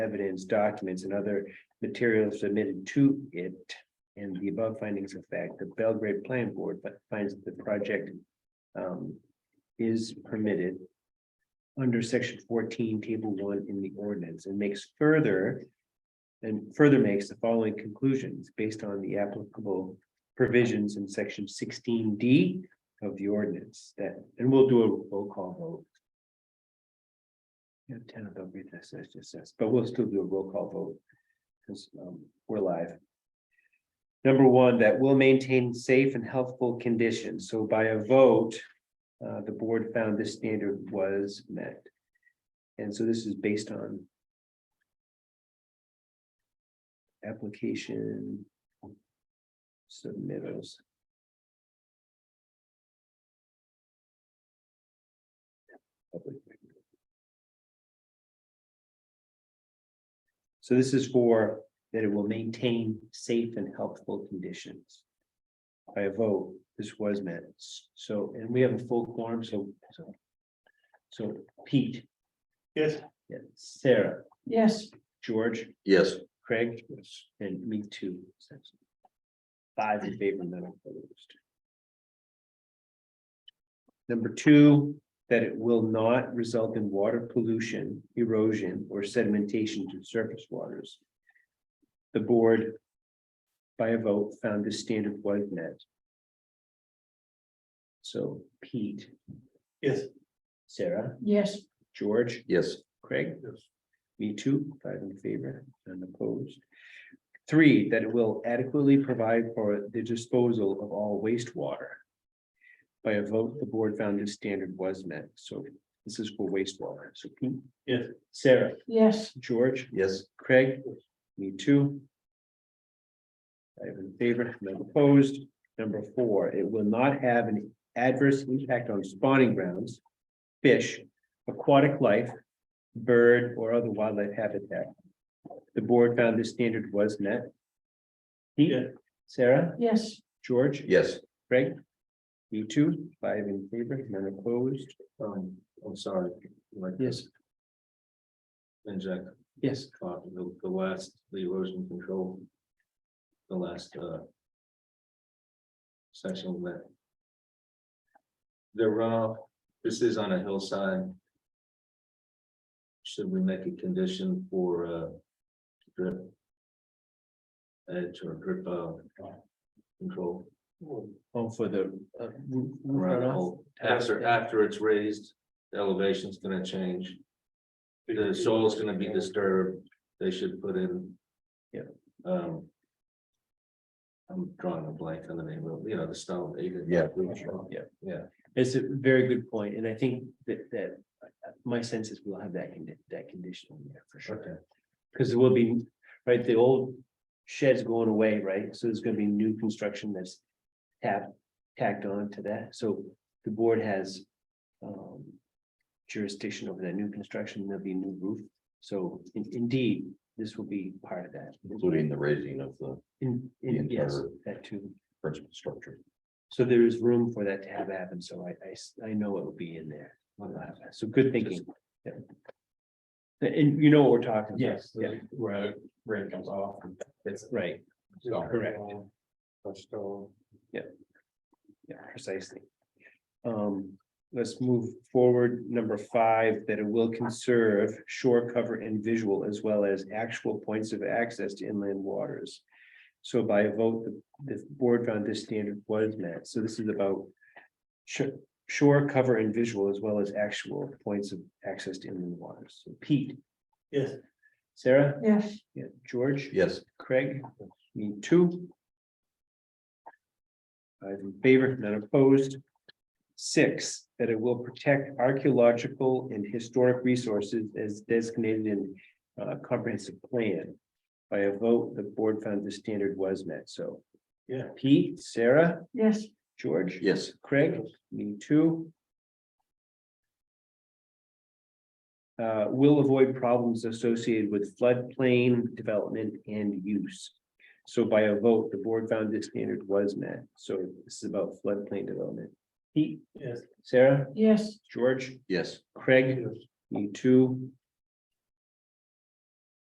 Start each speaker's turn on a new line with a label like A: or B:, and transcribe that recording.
A: evidence, documents, and other materials submitted to it. And the above findings of fact, the Belgrade Plan Board fi- finds that the project um, is permitted under section fourteen, table one in the ordinance, and makes further and further makes the following conclusions based on the applicable provisions in section sixteen D of the ordinance that, and we'll do a roll call vote. Yeah, ten of them read this, as just says, but we'll still do a roll call vote. Because um, we're live. Number one, that will maintain safe and healthful conditions, so by a vote. Uh, the board found this standard was met. And so this is based on. Application. Submittals. So this is for that it will maintain safe and helpful conditions. By a vote, this was met, so, and we have a full quorum, so, so. So Pete,
B: Yes.
A: yeah, Sarah,
C: Yes,
A: George,
D: Yes,
A: Craig, and me too. essentially. Five in favor, none opposed. Number two, that it will not result in water pollution, erosion, or sedimentation to surface waters. The board, by a vote, found this standard was met. So Pete,
B: Yes.
A: Sarah,
C: yes,
A: George,
D: yes,
A: Craig? Me too, five in favor and opposed. Three, that it will adequately provide for the disposal of all wastewater. By a vote, the board found this standard was met, so this is for wastewater, so Pete.
B: Yes.
A: Sarah,
C: yes,
A: George,
D: yes,
A: Craig, me too. Five in favor, none opposed. Number four, it will not have an adverse impact on spawning grounds, fish, aquatic life, bird, or other wildlife habitat. The board found this standard was met. Pete,
B: Yeah.
A: Sarah,
C: yes,
A: George?
D: yes,
A: Greg? You two, five in favor, none opposed?
E: Um, I'm sorry. like,
A: Yes.
E: And Jack,
A: Yes.
E: uh, the, the last, the erosion control. The last, uh. Section that. The runoff, this is on a hillside. Should we make a condition for, uh, drip? Edge or drip, uh, control
A: Oh, for the. uh, roo- roof
E: around the
A: runoff?
E: hole? After, after it's raised, the elevation's gonna change. The soil's gonna be disturbed, they should put in.
A: Yeah.
E: Um. I'm drawing a blank on the name of, you know, the stone. they did-
D: Yeah.
A: Yeah.
E: Yeah.
A: It's a very good point, and I think that that uh, my sense is we'll have that condi- that condition in there for
E: Okay,
A: sure. Because it will be, right, the old shed's going away, right? So there's gonna be new construction that's tapped, tacked on to that, so the board has um jurisdiction over that new construction, there'll be new roof, so in- indeed, this will be part of that.
D: including the raising of the
A: In, in,
D: The
A: yes,
D: entire-
A: that too.
D: principal structure.
A: So there is room for that to have happen, so I, I, s- I know it will be in there. We'll have that. So good thinking. Yeah. And- And you know what we're talking. about.
B: Yes,
A: Yeah,
B: where rain comes off. It's
A: right, correct. yeah, precisely. Um, let's move forward, number five, that it will conserve shore cover and visual as well as actual points of access to inland waters. So by a vote, the, the board found this standard was met, so this is about. Shore, shore cover and visual as well as actual points of access to inland waters, So Pete,
B: Yes.
A: Sarah,
C: yes,
A: yeah, George?
D: Yes,
A: Craig, me too. Five in favor, none opposed. Six, that it will protect archaeological and historic resources as designated in uh, comprehensive plan. By a vote, the board found the standard was met, so.
B: Yeah.
A: Pete, Sarah,
C: yes,
A: George?
D: yes,
A: Craig, me too. Uh, will avoid problems associated with floodplain development and use. So by a vote, the board found this standard was met, so this is about floodplain development. Pete,
B: Yes.
A: Sarah,
C: yes,
A: George,
D: yes,
A: Craig, me too,